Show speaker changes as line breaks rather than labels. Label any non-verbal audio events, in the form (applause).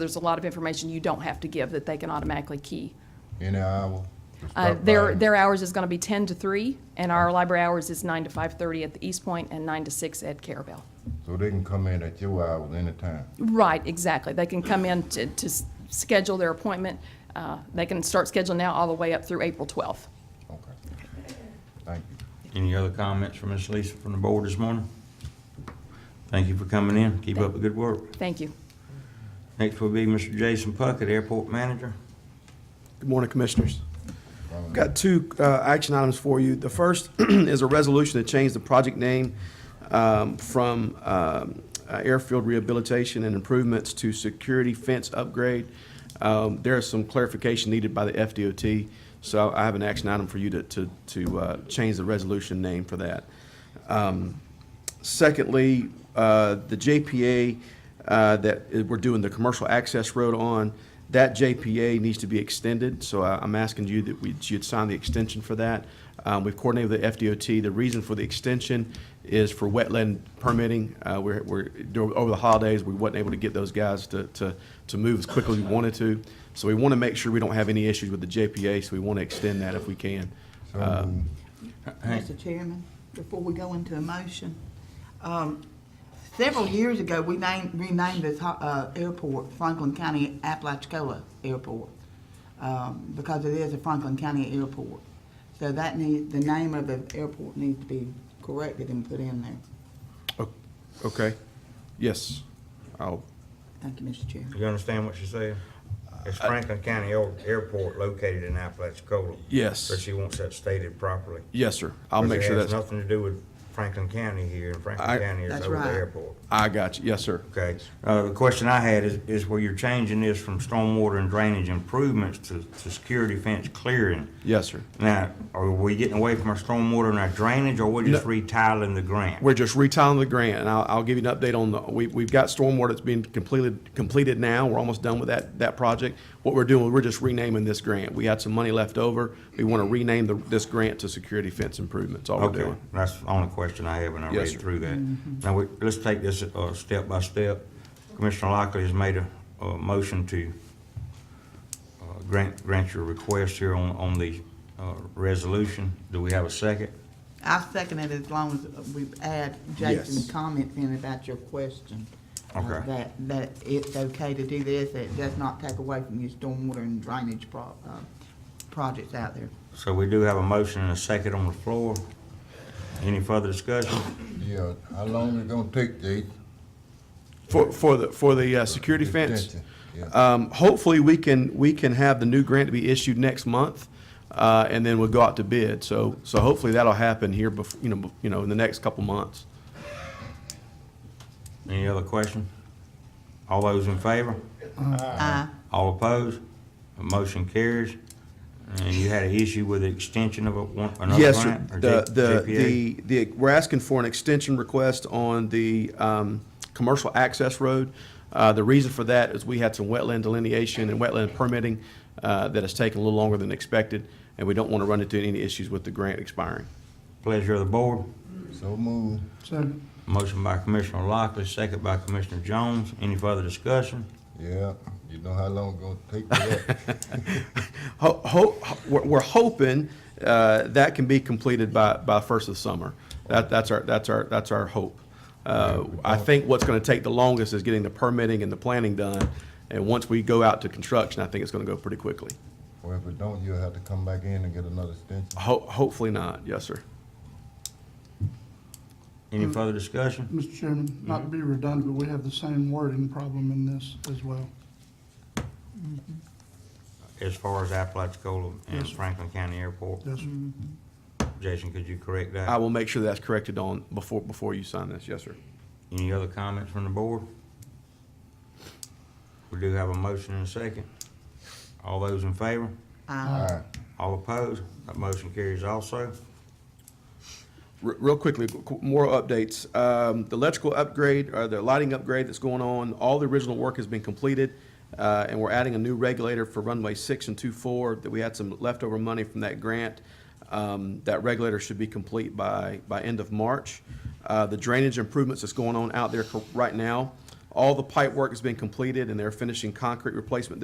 There's a lot of information you don't have to give that they can automatically key.
in an hour.
Uh, Their, their hours is going to be 10 to 3, and our library hours is 9 to 5:30 at the East Point and 9 to 6 at Carabel.
So they can come in at your hours anytime.
Right, exactly. They can come in to, to s- schedule their appointment. Uh, They can start scheduling now all the way up through April 12th.
Okay. Thank you.
Any other comments from Ms. Lisa from the board this morning? Thank you for coming in. Keep up the good work.
Thank you.
Next will be Mr. Jason Puckett, Airport Manager.
Good morning, Commissioners. I've Got two uh, action items for you. The first (clears throat) is a resolution to change the project name um, from um, uh, Airfield Rehabilitation and Improvements to Security Fence Upgrade. Um, There is some clarification needed by the FDOT, so I have an action item for you to- to to uh, change the resolution name for that. Um, Secondly, uh, the JPA uh, that i- we're doing the commercial access road on, that JPA needs to be extended, so I- I'm asking you that we, you'd sign the extension for that. Um, We've coordinated with the FDOT. The reason for the extension is for wetland permitting. Uh, We're, we're, dur- over the holidays, we wasn't able to get those guys to, to, to move as quickly as we wanted to. So we want to make sure we don't have any issues with the JPA, so we want to extend that if we can.
So
Uh,
moved.
Hank.
Mr. Chairman, before we go into a motion, um, several years ago, we named, renamed this ho- uh, airport Franklin County Apalachicola Airport, um, because it is a Franklin County airport. So that needs, the name of the airport needs to be corrected and put in there.
O- Okay? Yes. I'll
Thank you, Mr. Chairman.
You understand what she said?
Uh,
It's Franklin County Air- Airport located in Apalachicola.
Yes.
But she wants that stated properly.
Yes, sir. I'll make
Because
sure
it has
that's,
nothing to do with Franklin County here, and Franklin
I-
County is
That's
over the
right.
airport.
I got you. Yes, sir.
Okay, uh, the question I had is, is where you're changing this from stormwater and drainage improvements to, to security fence clearing.
Yes, sir.
Now, are we getting away from our stormwater and our drainage, or we're just retiling the grant?
We're just retiling the grant, and I'll, I'll give you an update on the, we, we've got stormwater that's being completed, completed now. We're almost done with that, that project. What we're doing, we're just renaming this grant. We had some money left over. We want to rename the, this grant to security fence improvements, all we're
Okay,
doing.
that's the only question I have when I
Yes,
read
sir.
through that. Now, we, let's take this, uh, step by step. Commissioner Lockley has made a, a motion to, uh, grant, grant your request here on, on the, uh, resolution. Do we have a second?
I second it as long as we add
Yes.
Jason's comments in about your question. uh,
Okay.
That, that it's okay to do this, it does not take away from your stormwater and drainage pro, uh, projects out there.
So we do have a motion and a second on the floor. Any further discussion?
Yeah, how long it gonna take, Jay?
For, for the, for the, uh, security fence?
Extension, yeah.
Um, hopefully, we can, we can have the new grant to be issued next month, uh, and then we'll go out to bid. So, so hopefully that'll happen here bef, you know, bef- you know, in the next couple months.
Any other question? All those in favor?
Aye.
All opposed? The motion carries. And you had an issue with the extension of a one, another
Yes, sir.
grant? or
The,
J-
the,
JPA?
the, the, we're asking for an extension request on the, um, commercial access road. Uh, the reason for that is we had some wetland delineation and wetland permitting, uh, that has taken a little longer than expected, and we don't want to run into any issues with the grant expiring.
Pleasure of the board.
So moved.
Motion by Commissioner Lockley, second by Commissioner Jones. Any further discussion?
Yeah, you know how long it gonna take for
(laughs)
that?
Ho- ho- ho- we're, we're hoping, uh, that can be completed by, by first of summer. That, that's our, that's our, that's our hope. Uh, I think what's gonna take the longest is getting the permitting and the planning done, and once we go out to construction, I think it's gonna go pretty quickly.
Or if it don't, you'll have to come back in and get another extension.
Ho- hopefully not, yes, sir.
Any
Mm.
further discussion?
Mr. Chairman, not to be redundant, but we have the same wording problem in this as well.
As far as Apalachicola and
Yes, sir.
Franklin County Airport,
Yes, sir.
Jason, could you correct that?
I will make sure that's corrected on, before, before you sign this, yes, sir.
Any other comments from the board? We do have a motion and a second. All those in favor?
Aye.
Alright,
All opposed? That motion carries also.
Re- Real quickly, qu- more updates. Um, The electrical upgrade, or the lighting upgrade that's going on, all the original work has been completed, uh, and we're adding a new regulator for runway six and two four, that we had some leftover money from that grant. Um, That regulator should be complete by, by end of March. Uh, The drainage improvements that's going on out there cor- right now, All the pipe work has been completed, and they're finishing concrete replacement